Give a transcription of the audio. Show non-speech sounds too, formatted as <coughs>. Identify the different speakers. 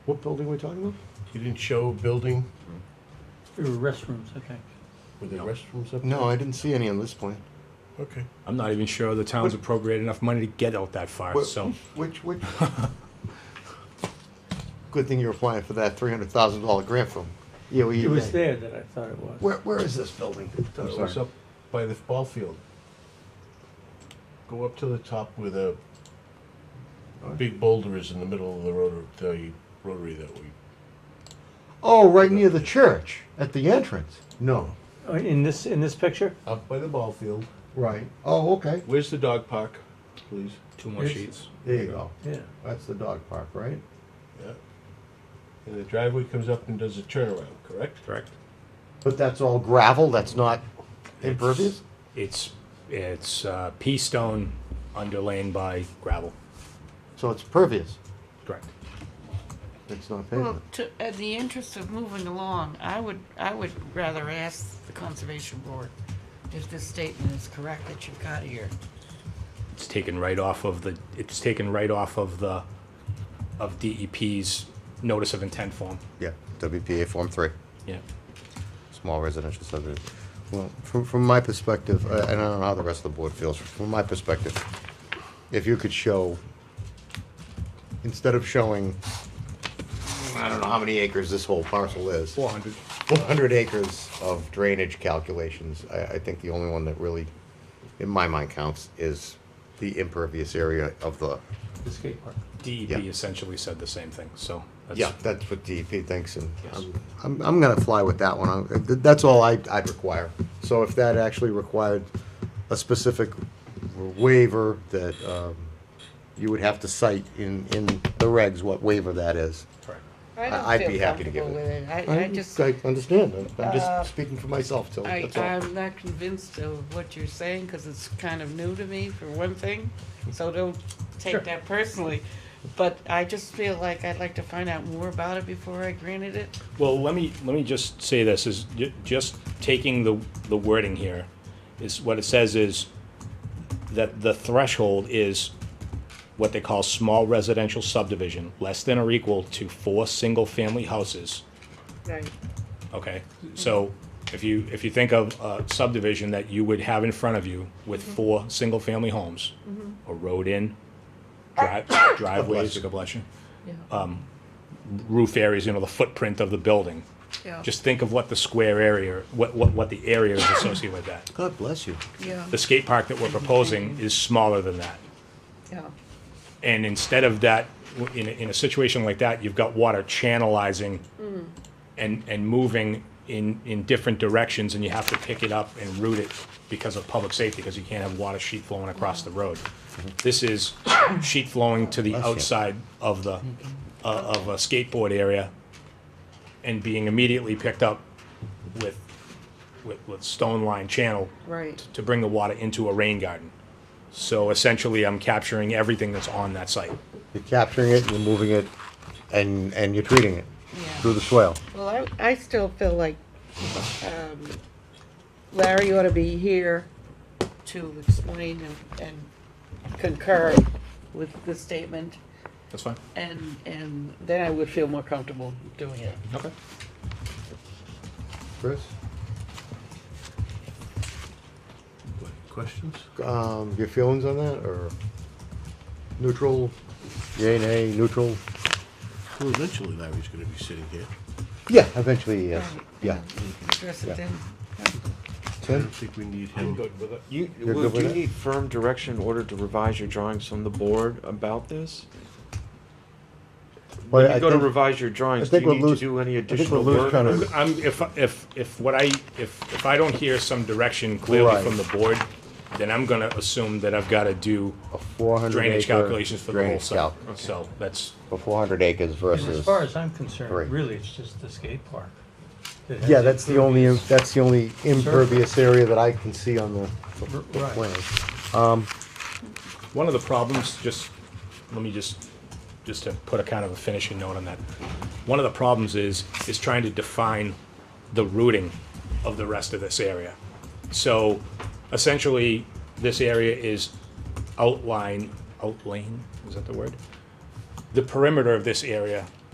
Speaker 1: What building are we talking about? You didn't show a building
Speaker 2: There were restrooms, okay.
Speaker 1: with the
Speaker 3: No.
Speaker 1: restrooms up?
Speaker 4: No, I didn't see any on this plan.
Speaker 1: Okay.
Speaker 3: I'm not even sure the town's appropriated enough money to get out that far,
Speaker 4: What-
Speaker 3: so.
Speaker 4: Which, <laughs> which? Good thing you're applying for that three hundred thousand dollar grant from E EOE.
Speaker 2: It was there that I thought it was.
Speaker 4: Where, where is this building?
Speaker 1: Thought it was up by the ball field. Go up to the top where the big boulder is in the middle of the rotor, the rotary that we,
Speaker 4: Oh, right near the church, at the entrance. No.
Speaker 2: Oh, In this, in this picture?
Speaker 1: up by the ball field.
Speaker 4: Right. Oh, okay.
Speaker 1: Where's the dog park, please?
Speaker 3: Two more
Speaker 2: Yes.
Speaker 3: sheets.
Speaker 4: There you go.
Speaker 2: Yeah.
Speaker 4: That's the dog park, right?
Speaker 1: Yeah. And the driveway comes up and does a turnaround, correct?
Speaker 3: Correct.
Speaker 4: But that's all gravel, that's not impervious?
Speaker 3: It's, it's uh, pea stone underlain by gravel.
Speaker 4: So it's pervious,
Speaker 3: Correct.
Speaker 4: it's not
Speaker 5: Well,
Speaker 4: pavement.
Speaker 5: to, in the interest of moving along, I would, I would rather ask the Conservation Board if this statement is correct that you've got here.
Speaker 3: It's taken right off of the, it's taken right off of the, of DEP's notice of intent form.
Speaker 4: Yeah, WPA Form Three.
Speaker 3: Yeah.
Speaker 4: small residential subdivision. Well, from, from my perspective, uh, and I don't know how the rest of the board feels, from my perspective, if you could show, instead of showing, I don't know how many acres this whole parcel is,
Speaker 3: Four hundred.
Speaker 4: four hundred acres of drainage calculations, I, I think the only one that really, in my mind, counts is the impervious area of the,
Speaker 2: The skate park.
Speaker 3: DEP
Speaker 4: Yeah.
Speaker 3: E essentially said the same thing, so. that's-
Speaker 4: yeah, that's what DEP thinks, and
Speaker 3: Yes.
Speaker 4: I'm- I'm, I'm gonna fly with that one, I'm- th- that's all I, I'd require. So if that actually required a specific waiver that, um, you would have to cite in, in the regs what waiver that is.
Speaker 3: Correct.
Speaker 5: I
Speaker 4: don't
Speaker 5: don't
Speaker 4: I'd be
Speaker 5: feel
Speaker 4: happy to give
Speaker 5: comfortable with it. I, I just,
Speaker 4: I understand, I'm- I'm
Speaker 5: Uh,
Speaker 4: just speaking for myself, so
Speaker 5: I,
Speaker 4: that's all.
Speaker 5: I'm not convinced of what you're saying, cause it's kind of new to me, for one thing, so don't
Speaker 3: Sure.
Speaker 5: take that personally. But I just feel like I'd like to find out more about it before I granted it.
Speaker 3: Well, let me, let me just say this, is ju- just taking the, the wording here, is what it says is that the threshold is what they call small residential subdivision, less than or equal to four single-family houses,
Speaker 5: Right.
Speaker 3: okay? So if you, if you think of a subdivision that you would have in front of you with four single-family homes, a road in, dri- driveways, Mm-hmm. <coughs> God bless you, um,
Speaker 5: Yeah,
Speaker 3: roof areas, you know, the footprint of the building, Just think of what the square area, what, what, what the area is associated with that.
Speaker 4: God bless you.
Speaker 5: yeah,
Speaker 3: The skate park that we're proposing is smaller than that.
Speaker 5: yeah.
Speaker 3: And instead of that, w- in, a- in a situation like that, you've got water channelizing
Speaker 4: Mm-hmm.
Speaker 3: and, and moving in, in different directions and you have to pick it up and route it because of public safety, because you can't have water sheet flowing across the road. This is sheet flowing to the
Speaker 4: Mm-hmm. Bless you.
Speaker 3: outside of the, uh, of a skateboard area and being immediately picked up with, with, with stone line channel
Speaker 5: Right.
Speaker 3: to bring the water into a rain garden. So essentially, I'm capturing everything that's on that site.
Speaker 4: You're capturing it, you're moving it, and, and you're treating it
Speaker 5: Yeah.
Speaker 4: through the swale.
Speaker 5: Well, I, I still feel like um, Larry ought to be here to explain and- and concur with the statement,
Speaker 3: That's fine.
Speaker 5: and, and then I would feel more comfortable doing it.
Speaker 3: Okay.
Speaker 4: Chris?
Speaker 1: Questions?
Speaker 4: Um, your feelings on that, or neutral, yay, nay, neutral?
Speaker 1: Well, eventually Larry's gonna be sitting here.
Speaker 4: Yeah, eventually, yes, yeah.
Speaker 5: Um, Address it then.
Speaker 1: I don't think we need him.
Speaker 6: You,
Speaker 4: You're
Speaker 6: Lou,
Speaker 4: good with
Speaker 6: do you
Speaker 4: that?
Speaker 6: need firm direction in order to revise your drawings from the board about this? When
Speaker 4: But I
Speaker 6: you go to
Speaker 4: think-
Speaker 6: revise your
Speaker 4: I
Speaker 6: drawings, do
Speaker 4: think
Speaker 6: you
Speaker 4: what
Speaker 6: need to
Speaker 4: Lou's-
Speaker 6: do any
Speaker 4: I think
Speaker 6: additional
Speaker 4: what Lou's
Speaker 6: work?
Speaker 4: trying to-
Speaker 3: I'm, if, if, if what I, if, if I don't hear some direction clearly
Speaker 4: Right.
Speaker 3: from the board, then I'm gonna assume that I've gotta do
Speaker 4: A four hundred acre.
Speaker 3: drainage calculations for the whole
Speaker 4: drainage
Speaker 3: site.
Speaker 4: calc-
Speaker 3: So that's,
Speaker 4: For four hundred acres
Speaker 2: And as
Speaker 4: versus.
Speaker 2: far as I'm
Speaker 4: Right.
Speaker 2: concerned, really, it's just the skate park. that has
Speaker 4: Yeah, that's the only, im-
Speaker 2: impervious-
Speaker 4: that's the only impervious area that I can see on the, the
Speaker 2: R-
Speaker 4: the
Speaker 2: right.
Speaker 4: plan.
Speaker 3: one of the problems, just, let me just, just to put a kind of a finishing note on that. One of the problems is, is trying to define the routing of the rest of this area. So essentially, this area is outline, outline, is that the word? The perimeter of this area